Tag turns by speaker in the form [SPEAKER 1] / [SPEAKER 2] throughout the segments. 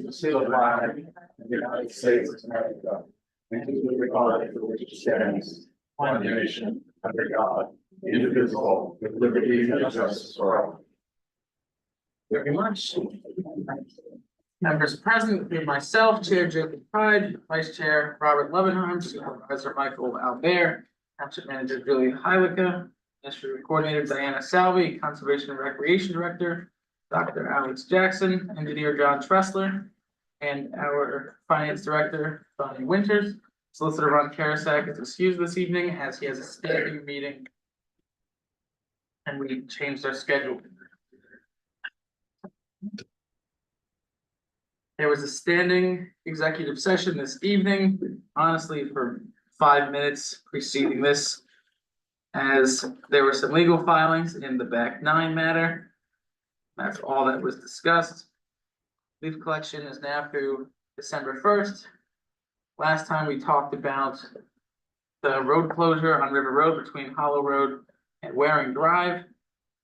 [SPEAKER 1] Concealed by the United States of America. And to the Republic for which it stands, one nation, under God, indivisible, with liberty and justice for all.
[SPEAKER 2] very much. Members present, being myself, Chair Jacob Pride, Vice Chair Robert Levenheim, Supervisor Michael Albert, Township Manager Julie Hylika, District Coordinator Diana Salvi, Conservation and Recreation Director, Dr. Alex Jackson, Engineer John Tressler, and our Finance Director, Bonnie Winters. Solicitor Ron Karasak is excused this evening as he has a standing meeting. And we changed our schedule. There was a standing executive session this evening, honestly, for five minutes preceding this. As there were some legal filings in the back nine matter. That's all that was discussed. Leaf collection is now through December first. Last time we talked about. The road closure on River Road between Hollow Road and Waring Drive.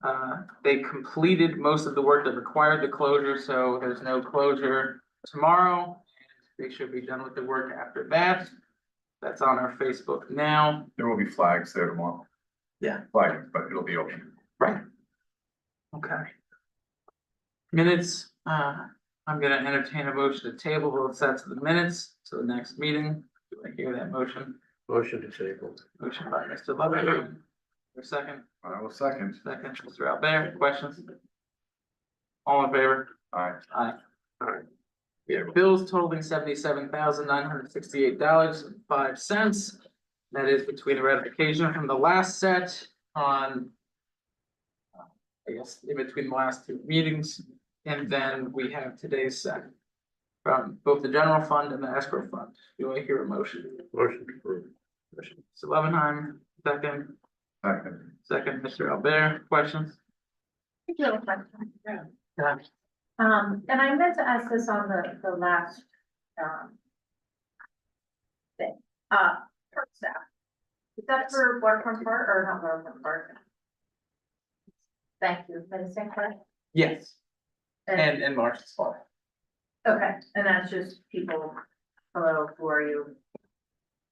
[SPEAKER 2] Uh, they completed most of the work that required the closure, so there's no closure tomorrow. They should be done with the work after that. That's on our Facebook now.
[SPEAKER 1] There will be flags there tomorrow.
[SPEAKER 2] Yeah.
[SPEAKER 1] Flags, but it'll be open.
[SPEAKER 2] Okay. Minutes, uh, I'm gonna entertain a motion to table both sets of the minutes to the next meeting. Do I hear that motion?
[SPEAKER 3] Motion disabled.
[SPEAKER 2] Motion by Mr. Levintham. Your second,
[SPEAKER 1] I will second.
[SPEAKER 2] second, Mr. Albert, questions? All in favor?
[SPEAKER 1] Aye.
[SPEAKER 2] Aye.
[SPEAKER 3] Aye.
[SPEAKER 2] We have bills totaling seventy-seven thousand nine hundred sixty-eight dollars and five cents. That is between the ratification from the last set on. uh, I guess in between the last two meetings, and then we have today's set. From both the general fund and the escrow fund. Do I hear a motion?
[SPEAKER 3] Motion approved.
[SPEAKER 2] Mr. Levenheim, second,
[SPEAKER 1] Second.
[SPEAKER 2] second, Mr. Albert, questions?
[SPEAKER 4] I do have a question.
[SPEAKER 2] Yeah.
[SPEAKER 4] Um, and I meant to ask this on the, the last, um. Thing, uh, park staff. Is that for waterfront park or not waterfront park? Thank you, for the same question.
[SPEAKER 2] Yes, and, and Marshall's fault.
[SPEAKER 4] Okay, and that's just people, hello, who are you?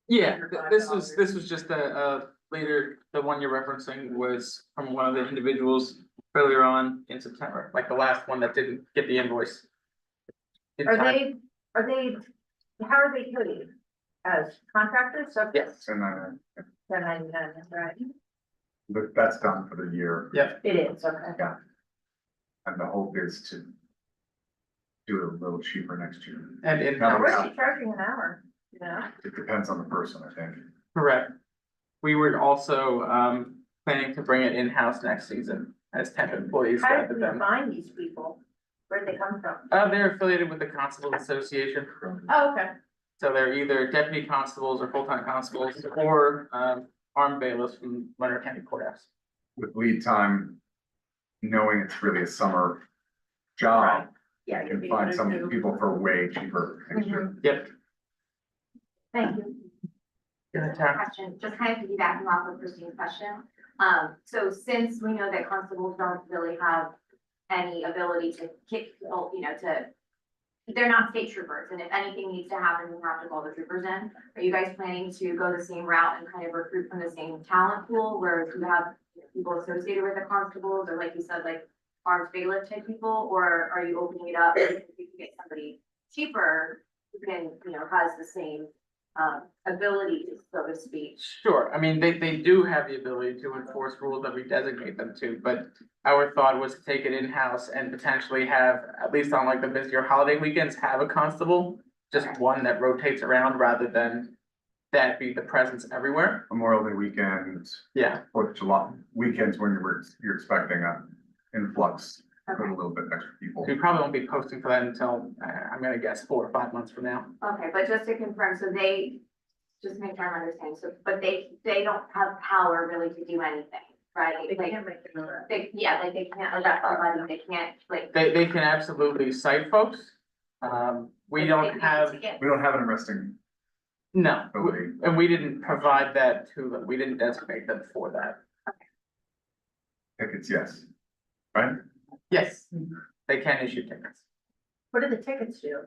[SPEAKER 2] Yeah,
[SPEAKER 4] Under
[SPEAKER 2] th-
[SPEAKER 4] five
[SPEAKER 2] this was,
[SPEAKER 4] dollars.
[SPEAKER 2] this was just a, uh, later, the one you're referencing was from one of the individuals earlier on in September, like the last one that didn't get the invoice. in
[SPEAKER 4] Are
[SPEAKER 2] time.
[SPEAKER 4] they, are they, how are they paid? As contractors, so?
[SPEAKER 2] Yes.
[SPEAKER 1] And uh, then,
[SPEAKER 4] Then I, that's right.
[SPEAKER 1] but that's done for the year
[SPEAKER 4] It is, okay.
[SPEAKER 1] and the hope is to do it a little cheaper next year.
[SPEAKER 2] And, and,
[SPEAKER 1] Not
[SPEAKER 4] How
[SPEAKER 1] really.
[SPEAKER 2] correct.
[SPEAKER 4] much are you charging an hour, you know?
[SPEAKER 1] It depends on the person, I think.
[SPEAKER 2] correct. We were also, um, planning to bring it in-house next season as temp employees
[SPEAKER 4] How
[SPEAKER 2] rather
[SPEAKER 4] did we
[SPEAKER 2] than,
[SPEAKER 4] find these people? Where'd they come from?
[SPEAKER 2] uh, they're affiliated with the Constable Association.
[SPEAKER 4] Oh, okay.
[SPEAKER 2] So they're either deputy constables or full-time constables or, um, armed bailiffs from Leonard County Courthouse.
[SPEAKER 1] with lead time, knowing it's really a summer
[SPEAKER 4] Right.
[SPEAKER 1] job, you
[SPEAKER 4] Yeah. you'd
[SPEAKER 1] can
[SPEAKER 4] be
[SPEAKER 1] find
[SPEAKER 4] able
[SPEAKER 1] some
[SPEAKER 4] to do-
[SPEAKER 1] people for way cheaper. next year.
[SPEAKER 4] Mhm.
[SPEAKER 2] Yep.
[SPEAKER 4] Thank you.
[SPEAKER 2] Yeah,
[SPEAKER 5] Just a
[SPEAKER 2] Tara.
[SPEAKER 5] Question, just kind of piggybacking off of Christine's question. Um, so since we know that constables don't really have any ability to kick, people, you know, to, they're not state troopers, and if anything needs to happen, we have to call the troopers in. Are you guys planning to go the same route and kind of recruit from the same talent pool where you have people associated with the constables or like you said, like armed bailiff type people, or are you opening it up? If you can get somebody cheaper who can, you know, has the same um, ability, so to speak.
[SPEAKER 2] Sure, I mean, they, they do have the ability to enforce rules that we designate them to, but our thought was to take it in-house and potentially have, at least on like the busier holiday weekends, have a constable. Just
[SPEAKER 5] Okay.
[SPEAKER 2] one that rotates around rather than that be the presence everywhere.
[SPEAKER 1] Memorial Day weekend,
[SPEAKER 2] Yeah,
[SPEAKER 1] Fourth of July, weekends when you're, you're expecting an influx, of
[SPEAKER 5] Okay,
[SPEAKER 1] a little bit extra people.
[SPEAKER 2] we probably won't be posting for that until, uh, I'm gonna guess, four or five months from now.
[SPEAKER 5] okay, but just to confirm, so they, just make sure I'm understanding, so, but they, they don't have power really to do anything, right?
[SPEAKER 4] They
[SPEAKER 5] Like,
[SPEAKER 4] can't make it over.
[SPEAKER 5] they, yeah, like they can't arrest somebody, they can't, like.
[SPEAKER 2] They, they can absolutely cite folks. Um, we don't have,
[SPEAKER 1] We don't have an arresting
[SPEAKER 2] no, we-
[SPEAKER 1] ability.
[SPEAKER 2] and we didn't provide that to them, we didn't designate them for that.
[SPEAKER 1] Tickets, yes.
[SPEAKER 2] Yes, they can issue tickets.
[SPEAKER 4] What do the tickets do?